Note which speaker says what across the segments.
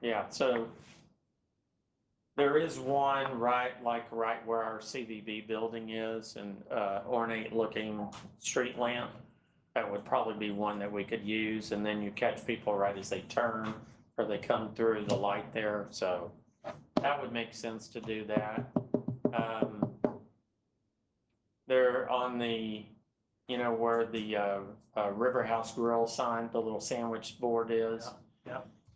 Speaker 1: Yeah, so there is one right, like right where our CVB building is and uh, ornate looking street lamp. That would probably be one that we could use and then you catch people right as they turn or they come through the light there, so that would make sense to do that. Um, There on the, you know, where the uh, uh, River House Grill sign, the little sandwich board is.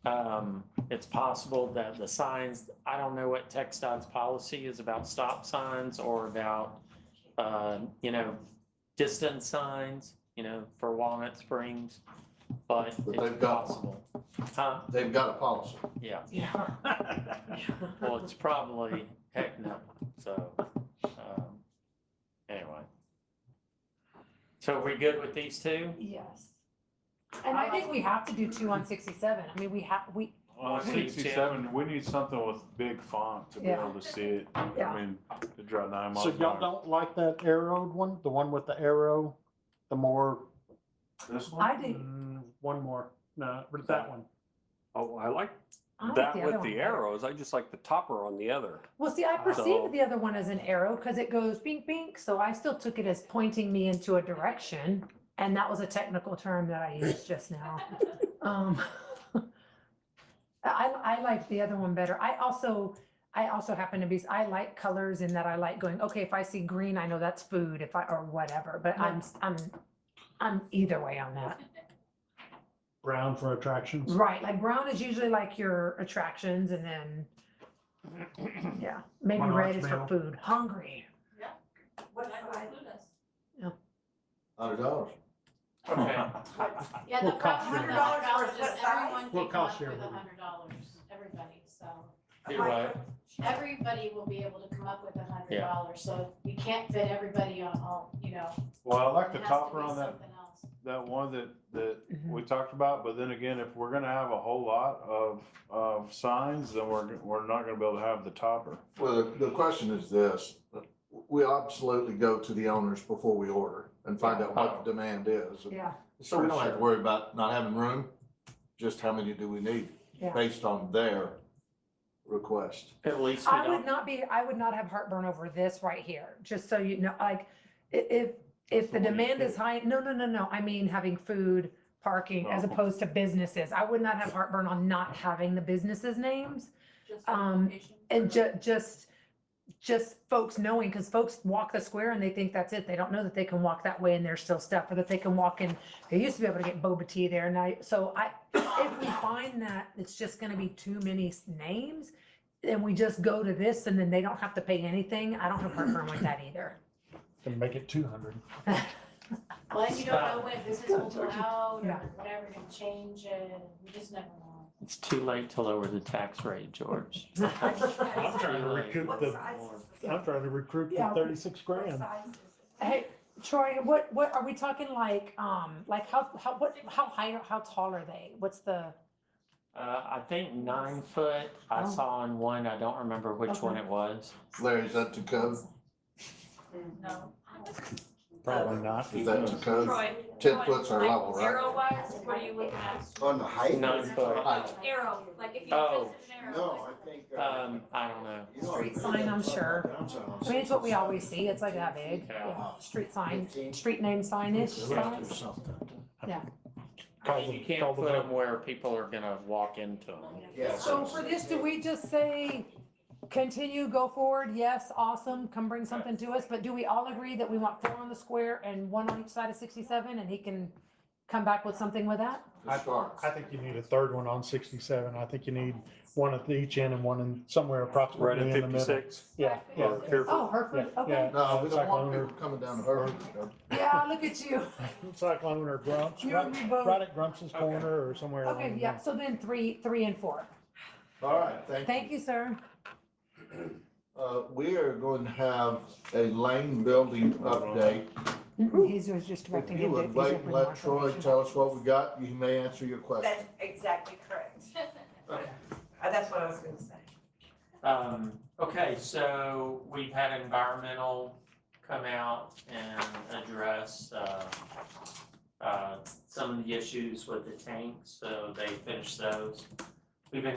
Speaker 1: Um, it's possible that the signs, I don't know what TechDOT's policy is about stop signs or about, uh, you know, distance signs, you know, for Walnut Springs, but
Speaker 2: But
Speaker 1: it's
Speaker 2: they've got-
Speaker 1: possible. Huh?
Speaker 2: They've got a policy.
Speaker 1: Yeah,
Speaker 3: Yeah.
Speaker 1: well, it's probably heck no, so, um, anyway. So are we good with these two?
Speaker 3: Yes. And I think we have to do two on sixty-seven. I mean, we have, we,
Speaker 4: Well,
Speaker 1: One, two,
Speaker 4: sixty-seven, we need something with big font to be
Speaker 3: Yeah.
Speaker 4: able to see it.
Speaker 3: Yeah.
Speaker 4: I mean, to draw nine miles.
Speaker 5: So
Speaker 4: an
Speaker 5: y'all
Speaker 4: hour.
Speaker 5: don't like that arrowed one, the one with the arrow, the more,
Speaker 4: This one?
Speaker 3: I do.
Speaker 5: mm, one more, no, but that one.
Speaker 6: Oh, I like
Speaker 3: I like
Speaker 6: that
Speaker 3: the other
Speaker 6: with
Speaker 3: one.
Speaker 6: the arrows. I just like the topper on the other.
Speaker 3: Well, see, I
Speaker 6: So-
Speaker 3: perceived the other one as an arrow because it goes bink, bink, so I still took it as pointing me into a direction. And that was a technical term that I used just now. Um, I, I like the other one better. I also, I also happen to be, I like colors in that I like going, okay, if I see green, I know that's food, if I, or whatever, but I'm, I'm, I'm either way on that.
Speaker 5: Brown for attractions.
Speaker 3: Right, like brown is usually like your attractions and then, yeah, maybe
Speaker 5: One
Speaker 3: red
Speaker 5: large
Speaker 3: is for
Speaker 5: male.
Speaker 3: food, hungry.
Speaker 2: Hundred dollars.
Speaker 1: Okay,
Speaker 7: Yeah, the
Speaker 5: We'll cost
Speaker 7: problem with
Speaker 5: you
Speaker 7: the
Speaker 5: that.
Speaker 7: hundred dollars is everyone
Speaker 5: We'll
Speaker 7: can come
Speaker 5: cost
Speaker 7: up
Speaker 5: you
Speaker 7: with a
Speaker 5: everything.
Speaker 7: hundred dollars, everybody, so.
Speaker 1: do what?
Speaker 7: Everybody will be able to come up with a hundred
Speaker 1: Yeah.
Speaker 7: dollars, so you can't fit everybody on all, you know.
Speaker 4: Well, I like
Speaker 7: it
Speaker 4: the
Speaker 7: has to
Speaker 4: topper
Speaker 7: be
Speaker 4: on that,
Speaker 7: something else.
Speaker 4: that one that, that
Speaker 3: Mhm.
Speaker 4: we talked about, but then again, if we're gonna have a whole lot of, of signs, then we're, we're not gonna be able to have the topper.
Speaker 2: Well, the, the question is this, we absolutely go to the owners before we order and find out what the demand is.
Speaker 3: Yeah,
Speaker 2: So we don't have to worry about not having room, just how many do we need
Speaker 3: yeah.
Speaker 2: based on their request.
Speaker 1: At least we
Speaker 3: I would
Speaker 1: don't,
Speaker 3: not be, I would not have heartburn over this right here, just so you know, like, i- if, if the
Speaker 4: That's the one you
Speaker 3: demand is
Speaker 4: picked.
Speaker 3: high, no, no, no, no, I mean having food, parking, as
Speaker 4: Oh.
Speaker 3: opposed to businesses. I would not have heartburn on not having the businesses' names. Um, And ju- just, just folks knowing, because folks walk the square and they think that's it. They don't know that they can walk that way and there's still stuff, or that they can walk in. They used to be able to get boba tea there and I, so I, if we find that it's just gonna be too many s- names, then we just go to this and then they don't have to pay anything. I don't have heartburn with that either. Mm-hmm.
Speaker 5: Can make it two hundred.
Speaker 7: Well, and you don't know when business will go out or
Speaker 3: Yeah.
Speaker 7: whatever, can change it, you just never know.
Speaker 1: it's too late to lower the tax rate, George.
Speaker 3: I'm
Speaker 1: trying to recoup
Speaker 5: the, I'm trying to recruit
Speaker 3: the Yeah.
Speaker 5: thirty-six grand.
Speaker 3: Hey, Troy, what, what, are we talking like, um, like how, how, what, how high, how tall are they? What's the?
Speaker 1: Uh, I think nine foot, I
Speaker 3: Oh.
Speaker 1: saw on one, I don't remember which one it was.
Speaker 2: Larry, is that to code?
Speaker 7: Mm-hmm.
Speaker 8: No.
Speaker 5: Probably not.
Speaker 2: Is that to code?
Speaker 8: Troy.
Speaker 2: Ten
Speaker 8: Troy,
Speaker 2: foots are
Speaker 8: like
Speaker 2: level, right?
Speaker 8: Zero wise, what are you looking at?
Speaker 9: On the height?
Speaker 1: Nine foot.
Speaker 2: Height.
Speaker 8: Arrow, like if you
Speaker 1: Oh.
Speaker 8: just did an arrow.
Speaker 9: No, I think. uh,
Speaker 1: Um, I don't know.
Speaker 9: you
Speaker 6: Uh,
Speaker 9: know,
Speaker 3: Street
Speaker 9: I
Speaker 3: sign, I'm
Speaker 9: think
Speaker 3: sure.
Speaker 9: downtown,
Speaker 3: I mean, it's what we always see, it's like that big,
Speaker 1: Yeah.
Speaker 3: yeah. street sign,
Speaker 9: 15.
Speaker 3: street name signage,
Speaker 2: We'll have to do
Speaker 3: signs.
Speaker 2: something.
Speaker 1: I mean, You can't put them where people are gonna walk into them.
Speaker 9: Yeah,
Speaker 3: So for this, do we just say, continue, go forward, yes, awesome, come bring something to us, but do we all agree that we want four on the square and one on each side of sixty-seven, and he can come back with something with that?
Speaker 2: To start.
Speaker 5: I think you need a third one on sixty-seven. I think you need one at each end and one in somewhere
Speaker 6: Right
Speaker 5: approximately
Speaker 6: at
Speaker 5: in the middle.
Speaker 6: fifty-six.
Speaker 5: Yeah, yeah.
Speaker 3: Oh,
Speaker 5: Yeah,
Speaker 3: Hereford,
Speaker 5: yeah.
Speaker 3: okay,
Speaker 2: No, we don't
Speaker 5: Cyclone
Speaker 2: want
Speaker 5: or,
Speaker 2: people coming down to Herb.
Speaker 3: yeah, look at you,
Speaker 5: Cyclone or Grumps,
Speaker 3: you and
Speaker 5: right,
Speaker 3: me both.
Speaker 5: right at Grumps's corner or somewhere. uh,
Speaker 3: Okay,
Speaker 5: along
Speaker 3: yeah,
Speaker 5: there.
Speaker 3: so then three, three and four,
Speaker 2: All right, thank you.
Speaker 3: thank you, sir.
Speaker 2: Uh, we are going to have a lane building update.
Speaker 3: Mm-mm, He's was just
Speaker 2: If
Speaker 3: directing
Speaker 2: you
Speaker 3: him to.
Speaker 2: would
Speaker 3: he's
Speaker 2: wait
Speaker 3: opening
Speaker 2: and
Speaker 3: more
Speaker 2: let Troy
Speaker 3: information.
Speaker 2: tell us what we got, you may answer your question.
Speaker 8: That's exactly correct. Uh, That's what I was gonna say.
Speaker 1: Um, okay, so we've had environmental come out and address, uh, uh, some of the issues with the tanks, so they finished those.